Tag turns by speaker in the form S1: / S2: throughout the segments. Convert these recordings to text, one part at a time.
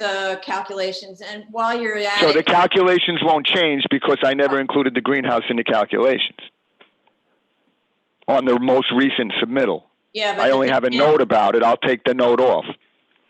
S1: the calculations. And while you're at
S2: So the
S1: it,
S2: calculations won't change because I never included the greenhouse in the calculations. On the most recent submittal,
S1: yeah. but
S2: I
S1: the
S2: only
S1: thing
S2: have a
S1: is-
S2: note about it. I'll take the note off.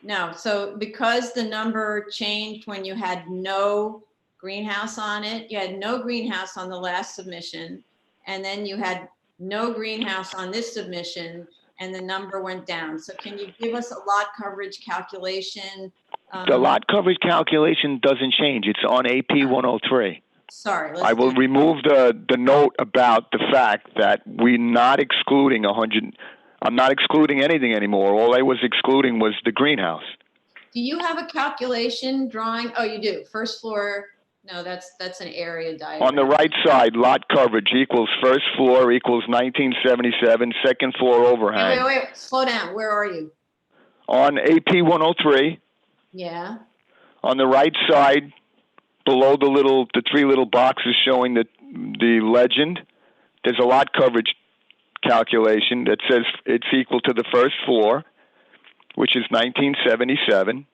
S1: No, so because the number changed when you had no greenhouse on it, you had no greenhouse on the last submission. And then you had no greenhouse on this submission and the number went down. So can you give us a lot coverage calculation?
S2: The
S1: um,
S2: lot coverage calculation doesn't change. It's on AP 103.
S1: Sorry. let's
S2: I will
S1: do-
S2: remove the, the note about the fact that we're not excluding 100, I'm not excluding anything anymore. All I was excluding was the greenhouse.
S1: Do you have a calculation drawing? Oh, you do. First floor, no, that's, that's an area diagram.
S2: On the right side, lot coverage equals first floor equals 1977, second floor overhang.
S1: Wait, wait, wait, slow down. Where are you?
S2: on AP 103
S1: Yeah,
S2: on the right side below the little the three little boxes showing the the legend there's a lot coverage calculation that says it's equal to the first floor which is 1977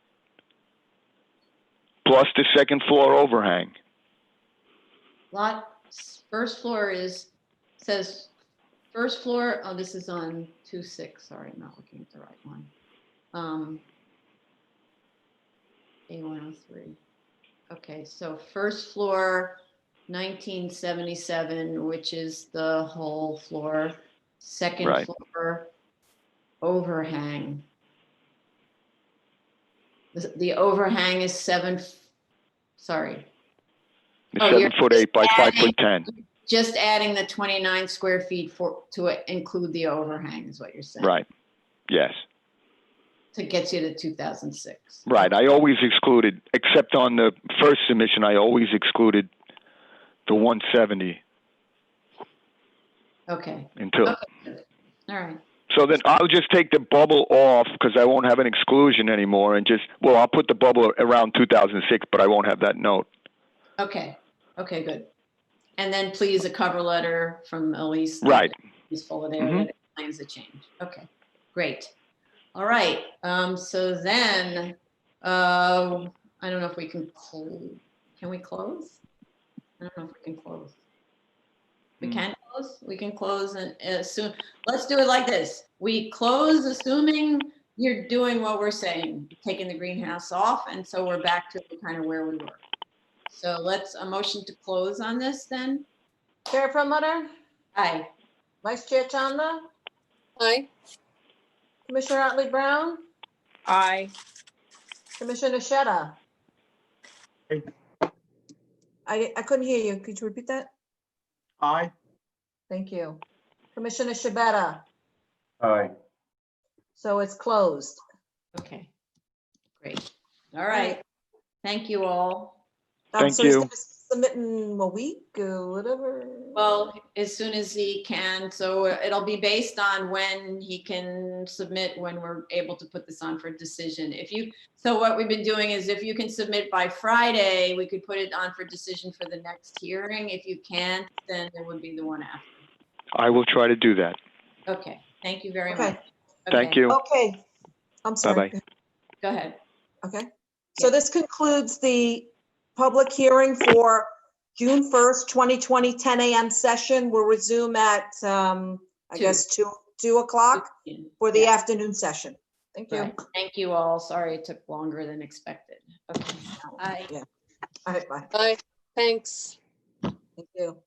S2: plus the second floor overhang
S1: lot, first floor is, says, first floor, oh, this is on two six, sorry, I'm not looking at the right one. Um. A one oh three. Okay, so first floor nineteen seventy-seven, which is the whole floor, second
S2: Right.
S1: floor overhang. The the overhang is seven, f- sorry,
S2: the
S1: Oh, you're
S2: 7 foot 8 by 5
S1: adding-
S2: foot 10
S1: just adding the 29 square feet for, to it- include the overhang is what you're saying?
S2: right yes
S1: To get you to 2006?
S2: Right. I always excluded, except on the first submission, I always excluded the 170
S1: Okay,
S2: until.
S1: Okay. all right.
S2: So then I'll just take the bubble off because I won't have an exclusion anymore and just, well, I'll put the bubble around 2006, but I won't have that note.
S1: Okay, okay, good. And then please a cover letter from Elise. that
S2: Right.
S1: Is full of there
S2: Mhm.
S1: that explains the change. Okay, great. All right, um, so then, uh, I don't know if we can, cl- can we close? I don't know if we can close. We
S2: Hmm.
S1: can close, we can close and assume, let's do it like this. We close assuming you're doing what we're saying, taking the greenhouse off, and so we're back to kind of where we were. So let's, a motion to close on this then?
S3: Chair Promoter,
S1: Aye.
S3: Vice Chair Chanda,
S4: Aye.
S3: Commissioner Otley Brown,
S4: Aye.
S3: Commissioner Sheta.
S5: Aye.
S3: I, I couldn't hear you. Could you repeat that?
S5: Aye.
S3: Thank you. Commissioner Shabeta,
S5: Aye.
S3: so it's closed.
S1: Okay. Great. All right. Thank you all.
S3: Um,
S2: Thank
S3: so he's
S2: you.
S3: gonna Submit in a week or whatever.
S1: Well, as soon as he can, so it'll be based on when he can submit, when we're able to put this on for decision. If you, so what we've been doing is if you can submit by Friday, we could put it on for decision for the next hearing. If you can't, then it would be the one after.
S2: I will try to do that.
S1: Okay, thank you very
S3: Okay.
S1: much.
S2: Thank
S1: Okay,
S2: you.
S3: Okay, I'm sorry.
S1: Go ahead.
S3: Okay, so this concludes the public hearing for June 1st, 2020, 10 a.m. session. We'll resume at, um, I
S1: Two.
S3: guess, 2, 2 o'clock for the afternoon session. Thank you.
S1: Right. Thank you all. Sorry it took longer than expected. Okay. Bye.
S3: All right, bye.
S4: Aye. Thanks.
S3: Thank you.